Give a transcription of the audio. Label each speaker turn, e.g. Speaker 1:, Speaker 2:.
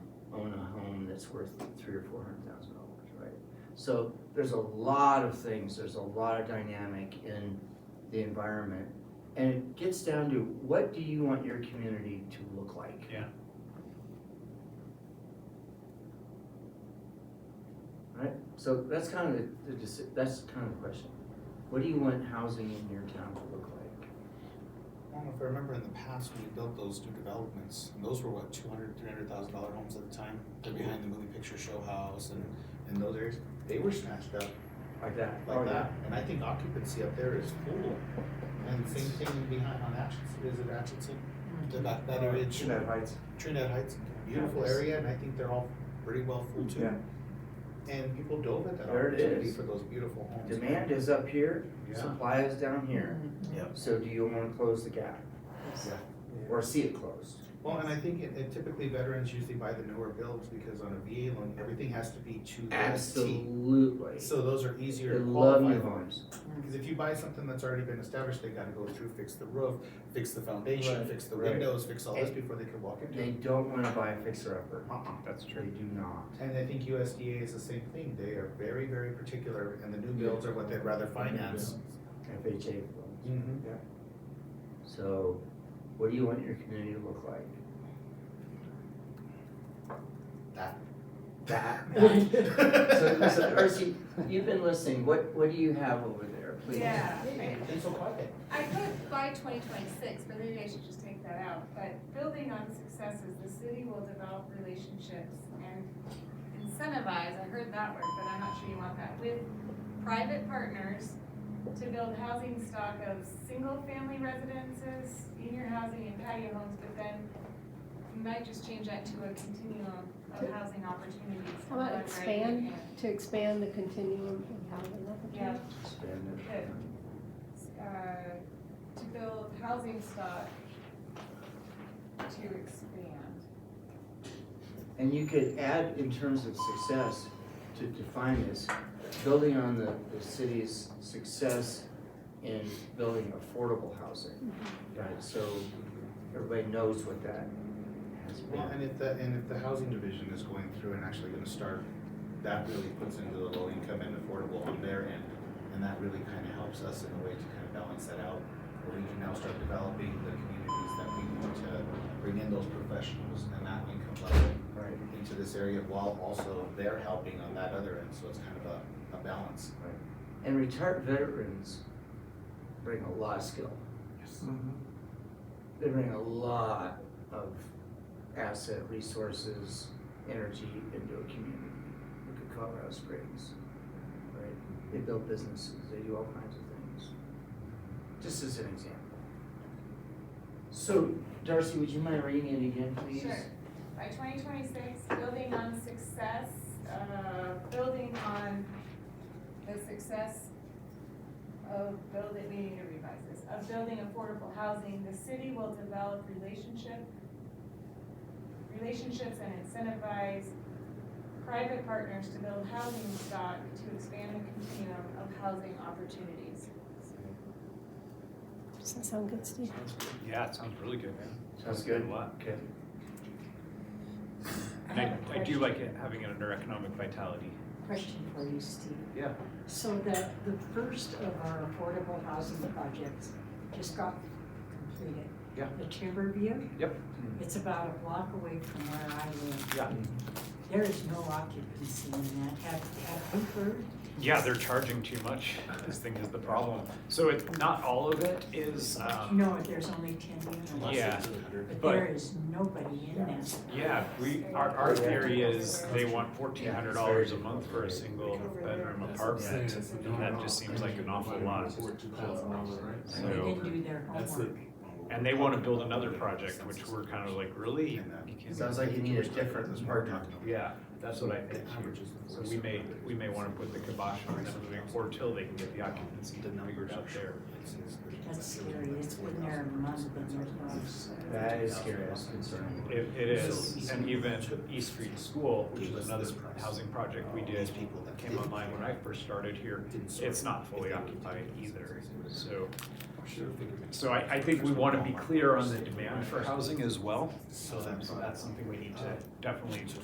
Speaker 1: that's worth three or four hundred thousand dollars, right? So there's a lot of things, there's a lot of dynamic in the environment. And it gets down to what do you want your community to look like?
Speaker 2: Yeah.
Speaker 1: Right, so that's kind of the, the deci- that's kind of the question. What do you want housing in your town to look like?
Speaker 3: I don't know if I remember in the past when we built those new developments, and those were what, two hundred, three hundred thousand dollar homes at the time? They're behind the movie picture show house and, and those areas, they were snatched up
Speaker 1: Like that.
Speaker 3: like that. And I think occupancy up there is full. And same thing behind on Atchison, is it Atchison? The
Speaker 1: Mm-hmm.
Speaker 3: back, that area, Trinidad,
Speaker 4: Heights.
Speaker 3: Trinidad Heights, beautiful area, and I think they're all pretty well full too.
Speaker 4: Yeah.
Speaker 3: And people dove at that
Speaker 1: There it
Speaker 3: opportunity
Speaker 1: is.
Speaker 3: for those beautiful homes.
Speaker 1: Demand is up here,
Speaker 3: Yeah,
Speaker 1: supply is down here.
Speaker 3: Yep.
Speaker 1: So do you wanna close the gap or see it closed?
Speaker 3: well, and I think it, it typically veterans usually buy the newer builds because on a VA loan, everything has to be to the T.
Speaker 1: Absolutely.
Speaker 3: So those are easier
Speaker 1: They
Speaker 3: to
Speaker 1: love new
Speaker 3: qualify.
Speaker 1: homes.
Speaker 3: Because if you buy something that's already been established, they gotta go through, fix the roof, fix the foundation,
Speaker 1: Right.
Speaker 3: fix the
Speaker 1: Right.
Speaker 3: windows, fix all this
Speaker 1: And-
Speaker 3: before they can walk into
Speaker 1: They
Speaker 3: it.
Speaker 1: don't wanna buy a fixer-upper.
Speaker 3: Uh-uh.
Speaker 2: That's
Speaker 1: They do not.
Speaker 3: And I think USDA is the same thing, they are very, very particular, and the new builds are what they'd rather finance.
Speaker 1: FHA loans.
Speaker 3: Mm-hmm.
Speaker 1: So, what do you want your community to look like?
Speaker 3: That.
Speaker 1: That. So, so,
Speaker 3: That.
Speaker 1: Darcy, you've been listening, what, what do you have over there, please?
Speaker 5: Yeah,
Speaker 3: It's so quiet.
Speaker 5: I put by twenty twenty-six, but maybe I should just take that out, but building on successes, the city will develop relationships and incentivize, I heard that word, but I'm not sure you want that, with private partners to build housing stock of single-family residences, senior housing and patio homes, but then you might just change that to a continuum of housing opportunities.
Speaker 6: How about expand? to expand the continuum of housing
Speaker 5: Yeah,
Speaker 6: opportunities.
Speaker 1: Expand it.
Speaker 5: Okay. uh, to build housing stock to expand.
Speaker 1: And you could add in terms of success, to define this, building on the, the city's success in building affordable housing. Right, so everybody knows what that has
Speaker 3: Well,
Speaker 1: been.
Speaker 3: and if the, and if the housing division is going through and actually gonna start, that really puts into the low income and affordable on their end. And that really kind of helps us in a way to kind of balance that out, where we can now start developing the communities that we want to bring in those professionals and that income level
Speaker 1: Right.
Speaker 3: into this area while also they're helping on that other end, so it's kind of a, a balance.
Speaker 1: And retired veterans bring a lot of skill. Mm-hmm. They bring a lot of asset, resources, energy into a community. Look at Colorado Springs, right? They build businesses, they do all kinds of things. Just as an example. So Darcy, would you mind reading it again, please?
Speaker 5: Sure. By twenty twenty-six, building on success, uh, building on the success of building, we need to revise this, of building affordable housing, the city will develop relationship, relationships and incentivize private partners to build housing stock to expand the continuum of housing opportunities.
Speaker 6: Does that sound good, Steve?
Speaker 2: Yeah, it sounds really good, man.
Speaker 1: Sounds good.
Speaker 2: A lot.
Speaker 1: Okay.
Speaker 2: And I, I do like it, having it under economic vitality.
Speaker 7: Question for you, Steve.
Speaker 2: Yeah.
Speaker 7: So the, the first of our affordable housing projects just got completed.
Speaker 2: Yeah.
Speaker 7: The Timberview.
Speaker 2: Yep.
Speaker 7: It's about a block away from where I live.
Speaker 2: Yeah.
Speaker 7: There is no occupancy in that. Have, have you heard?
Speaker 2: Yeah, they're charging too much, I think is the problem. So it's, not all of it is, um,
Speaker 7: No, there's only ten units.
Speaker 2: Yeah.
Speaker 7: But
Speaker 2: but-
Speaker 7: there is nobody in that.
Speaker 2: yeah, we, our, our theory is they want fourteen hundred dollars a month for a single bedroom apartment. And that just seems like an awful lot.
Speaker 7: They
Speaker 2: So,
Speaker 7: didn't do their
Speaker 4: That's the-
Speaker 7: homework.
Speaker 2: and they wanna build another project, which we're kind of like, really? You can't-
Speaker 1: Sounds like you need a different partner.
Speaker 2: Yeah, that's what I think. So we may, we may wanna put the kibosh on them moving forward till they can get the occupancy figured out there.
Speaker 7: That's scary. It's been there a month and there's no.
Speaker 1: That is scary, that's concerning.
Speaker 2: It, it is, and even East Street School, which is another housing project we did, came online when I first started here, it's not fully occupied either, so. So I, I think we wanna be clear on the demand for housing as well, so that's, so that's something we need to Uh, definitely